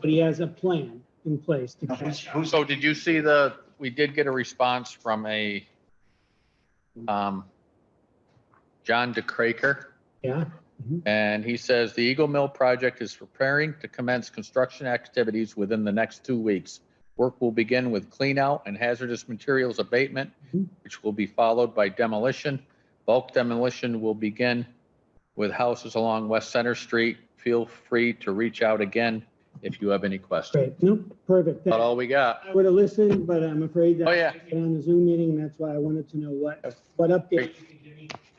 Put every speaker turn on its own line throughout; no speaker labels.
but he has a plan in place to
Who's,
catch.
who's,
So did you see the, we did get a response from a, um, John DeCraker,
Yeah,
and he says the Eagle Mill project is preparing to commence construction activities within the next two weeks. Work will begin with clean out and hazardous materials abatement,
Mhm.
which will be followed by demolition. Bulk demolition will begin with houses along West Center Street. Feel free to reach out again if you have any questions.
great. No, perfect.
About all we got.
I would have listened, but I'm afraid that.
Oh, yeah.
I get On the Zoom meeting, that's why I wanted to know what, what update.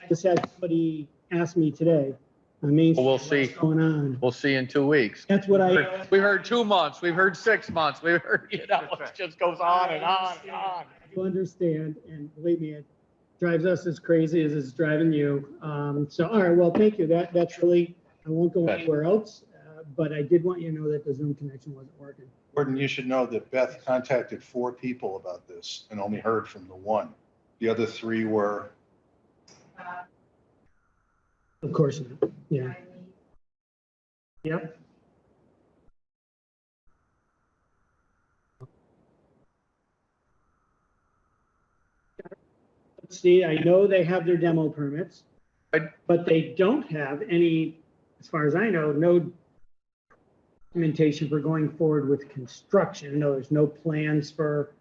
I just had somebody ask me today, I mean.
Well, we'll see.
What's going on?
We'll see you in two weeks.
That's what I,
We've heard two months, we've heard six months, we've heard, you know, it just goes on and on and on.
you understand, and believe me, it drives us as crazy as it's driving you. Um, so, all right, well, thank you. That, that's really, I won't go
Okay.
anywhere else, uh, but I did want you to know that the Zoom connection wasn't working.
Gordon, you should know that Beth contacted four people about this and only heard from the one. The other three were,
Of course not, yeah. Yep. Let's See, I know they have their demo permits,
Right.
but they don't have any, as far as I know, no documentation for going forward with construction. No, there's no plans for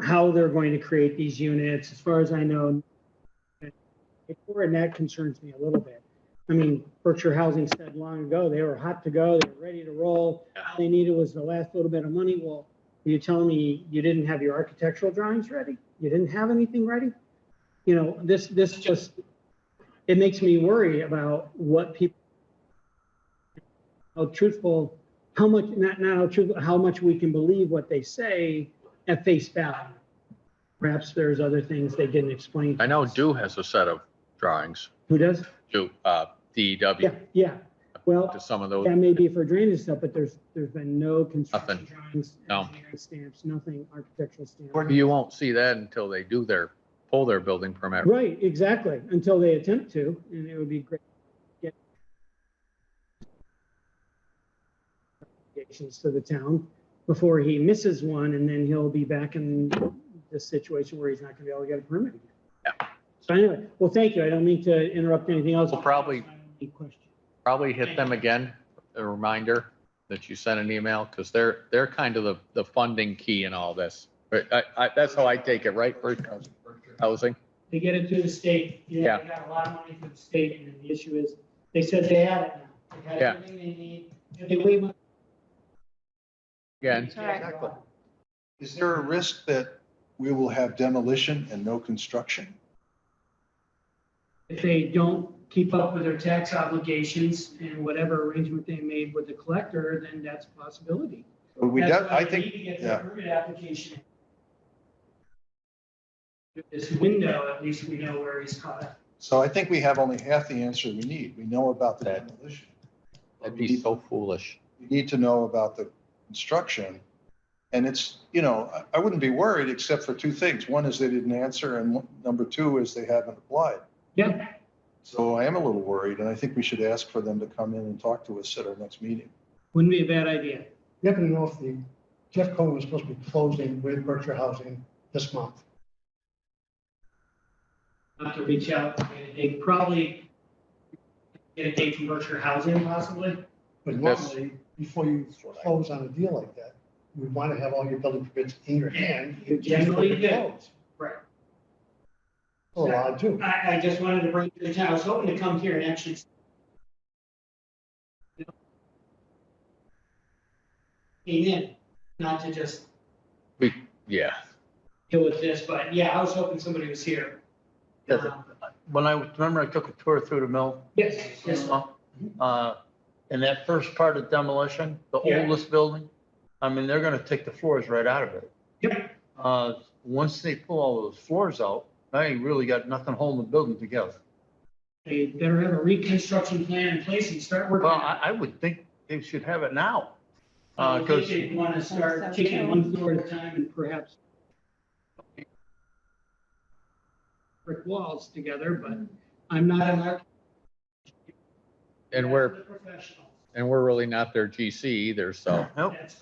how they're going to create these units. As far as I know, before, and that concerns me a little bit. I mean, Berkshire Housing said long ago, they were hot to go, they were ready to roll.
Yeah.
All they needed was the last little bit of money. Well, are you telling me you didn't have your architectural drawings ready? You didn't have anything ready? You know, this, this just, it makes me worry about what people, how truthful, how much, not, not how truthful, how much we can believe what they say at face value. Perhaps there's other things they didn't explain. to
I know
us.
Dew has a set of drawings,
Who does?
Dew, uh, DEW,
Yeah, yeah. Well,
to some of those.
that may be for drainage stuff, but there's, there's been no construction
Nothing.
drawings,
No.
engineering stamps, nothing architectural stamps.
You won't see that until they do their, pull their building permit.
Right, exactly, until they attempt to, and it would be great. to get recommendations To the town before he misses one, and then he'll be back in this situation where he's not gonna be able to get a permit again. So anyway, well, thank you. I don't mean to interrupt anything else.
We'll probably-
Any questions?
Probably hit them again, a reminder that you sent an email, because they're, they're kind of the, the funding key in all this. But I, I, that's how I take it, right, for housing?
They get it through the state. You know, They got a lot of money through the state, and then the issue is, they said they had it now. They had
Yeah.
everything they need. If they wait one-
Again,
Exactly. is there a risk that we will have demolition and no construction?
If they don't keep up with their tax obligations and whatever arrangement they made with the collector, then that's a possibility.
But We,
That's
def-
why
I
they
think,
need to get the
yeah.
permit application. This window, at least we know where he's caught.
so I think we have only half the answer we need. We know about the
That-
demolition.
that'd be so foolish.
We need to know about the construction. And it's, you know, I, I wouldn't be worried except for two things. One is they didn't answer and one- number two is they haven't applied.
Yeah.
So I am a little worried and I think we should ask for them to come in and talk to us at our next meeting.
Wouldn't be a bad idea.
You're not gonna know if the, Jeff Cohen was supposed to be closing with Berkshire Housing this month.
not to reach out, and get a date, probably get a date from Berkshire Housing possibly.
But
Yes.
normally, before you close on a deal like that, you want to have all your building permits in your hand.
You generally do.
It's
Right.
allowed to.
I, I just wanted to bring to the town, I was hoping to come here and actually. Came in, not to just
Yeah.
deal with this, but yeah, I was hoping somebody was here.
Yes.
Um,
when I, remember I took a tour through the mill.
Yes, yes,
Uh, And that first part of demolition, the
Yeah.
oldest building, I mean, they're gonna take the floors right out of it.
Yep.
Uh, Once they pull all those floors out, now you really got nothing holding the building together.
they better have a reconstruction plan in place and start working.
Well,
on it.
I, I would think they should have it now.
I
Uh,
think
'cause-
they want to start kicking one floor at a time and perhaps brick walls together, but I'm not an architect.
And we're,
Professional.
and we're really not their GC either, so.
Nope.
That's